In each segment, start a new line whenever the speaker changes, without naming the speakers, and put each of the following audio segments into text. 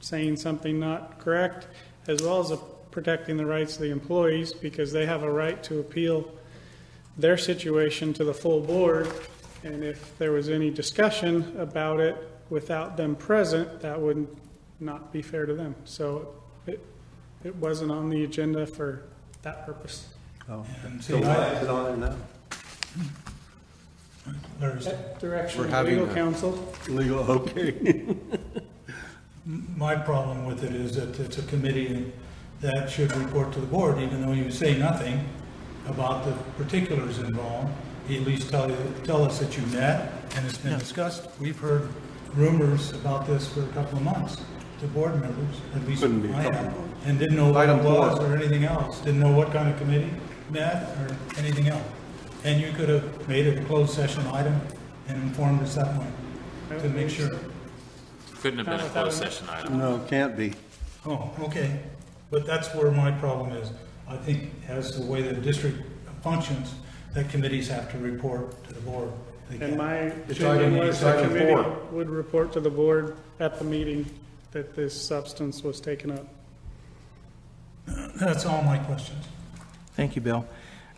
saying something not correct, as well as uh, protecting the rights of the employees, because they have a right to appeal their situation to the full board. And if there was any discussion about it without them present, that would not be fair to them. So it, it wasn't on the agenda for that purpose.
Oh,
So why is it on there now?
There's,
That direction
We're
of
having
legal
a-
counsel,
legal, okay.
my problem with it is that it's a committee and that should report to the board, even though you say nothing about the particulars involved. You At least tell, you- tell us that you met and it's been discussed. We've heard rumors about this for a couple of months to board members, at least
Couldn't be a
I
couple
have. And didn't know what it
Item four.
was or anything else, didn't know what kind of committee met or anything else. And you could have made it a closed session item and informed us that way to make sure.
Couldn't have been a closed session item.
No, can't be.
Oh, okay, but that's where my problem is. I think as the way the district functions, that committees have to report to the board. They
and
can't-
my
It's item-
opinion was
it's
the
item
committee
four.
would report to the board at the meeting that this substance was taken up.
That's all my questions.
Thank you, Bill.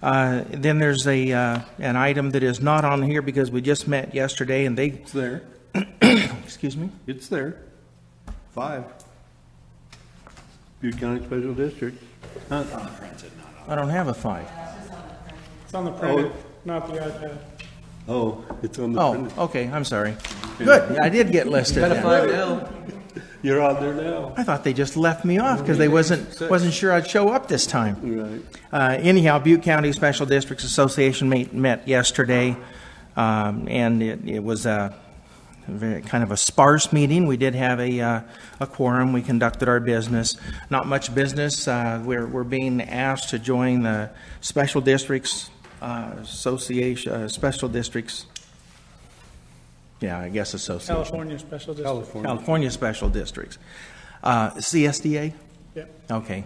Uh, Then there's a, uh, an item that is not on here because we just met yesterday and they,
It's there.
excuse me,
It's there. Five. Butte County Special District.
I don't have a five.
It's
Oh.
on the printed, not the iPad.
Oh, it's on the
Oh,
printed.
okay, I'm sorry. Good, I did get listed then.
now.
You're on there now.
I thought they just left me off because they wasn't, wasn't sure I'd show up this time.
Right.
Uh, Anyhow, Butte County Special Districts Association meet- met yesterday, um, and it it was a very- kind of a sparse meeting. We did have a uh, a quorum, we conducted our business, not much business. Uh, We're we're being asked to join the Special Districts uh, Association, uh, Special Districts, yeah, I guess Association,
California Special District.
California Special Districts, Uh, CSDA?
Yep.
Okay.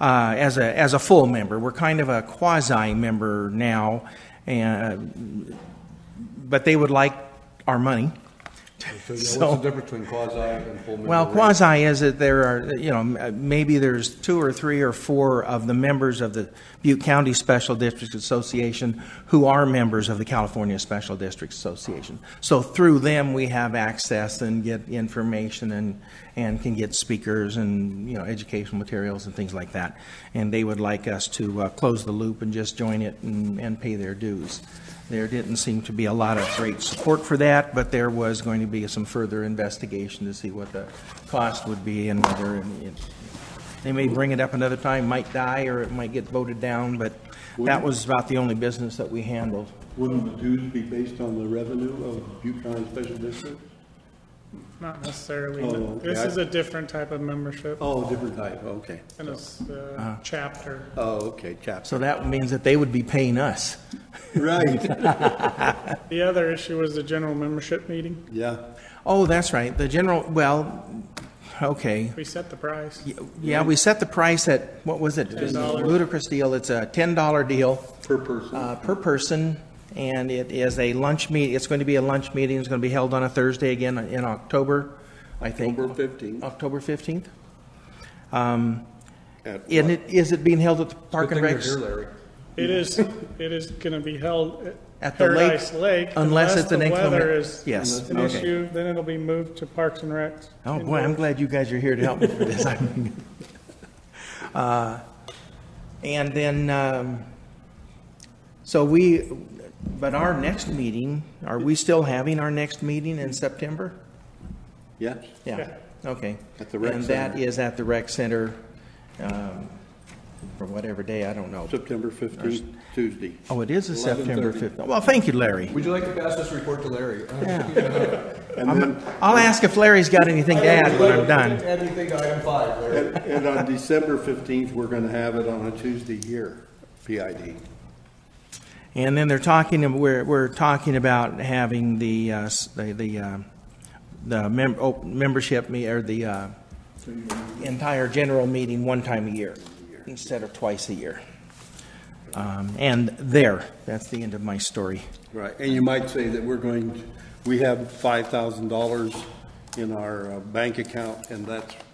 Uh, As a, as a full member, we're kind of a quasi-member now, and, but they would like our money.
What's
So-
the difference between quasi and full member?
Well,
rate?
quasi is that there are, you know, m- uh, maybe there's two or three or four of the members of the Butte County Special Districts Association who are members of the California Special Districts Association. So through them, we have access and get information and, and can get speakers and, you know, educational materials and things like that. And they would like us to uh, close the loop and just join it and, and pay their dues. There didn't seem to be a lot of great support for that, but there was going to be some further investigation to see what the cost would be and whether, and it- they may bring it up another time, might die, or it might get voted down, but that was about the only business that we handled.
Wouldn't the dues be based on the revenue of Butte County Special District?
Not necessarily.
Oh,
no.
okay.
This is a different type of membership
Oh, different type, okay.
and it's
Uh-huh.
a chapter.
Oh, okay, chaps.
So that means that they would be paying us.
Right,
The other issue was the general membership meeting.
yeah.
Oh, that's right, the general, well, okay.
We set the price.
Yeah, we set the price at, what was it?
$10.
Ludicrous deal, it's a $10 deal.
Per person.
uh, per person, and it is a lunch meet, it's going to be a lunch meeting, it's going to be held on a Thursday again in October, I think.
October 15th.
October 15th.
At
And
what?
it, is it being held at the Park
Good
and
thing you're
Rec?
here, Larry.
It is, it is going to be held at
At the lake,
Paradise Lake.
unless it's an
the
inclement-
weather is
yes,
An
okay.
issue, then it'll be moved to Parks and Rec.
Oh, boy, I'm glad you guys are here to help me for this. I'm- Uh, And then, um, so we, but our next meeting, are we still having our next meeting in September?
Yeah,
Yeah, okay.
At the rec
And that
center.
is at the rec center, um, for whatever day, I don't know.
September 15th, Tuesday.
Oh, it is a September
11:30.
5th. Well, thank you, Larry.
Would you like to pass this report to Larry? Uh,
And then,
I'll ask if Larry's got anything to add when I'm done.
Anything to item five, Larry?
and and on December 15th, we're going to have it on a Tuesday here, PID.
And then they're talking, we're, we're talking about having the, uh, s- the, the, uh, the mem- oh, membership, me- or the uh, entire general meeting one time a year instead of twice a year. Um, And there, that's the end of my story.
Right, and you might say that we're going, to- we have $5,000 in our uh, bank account, and that's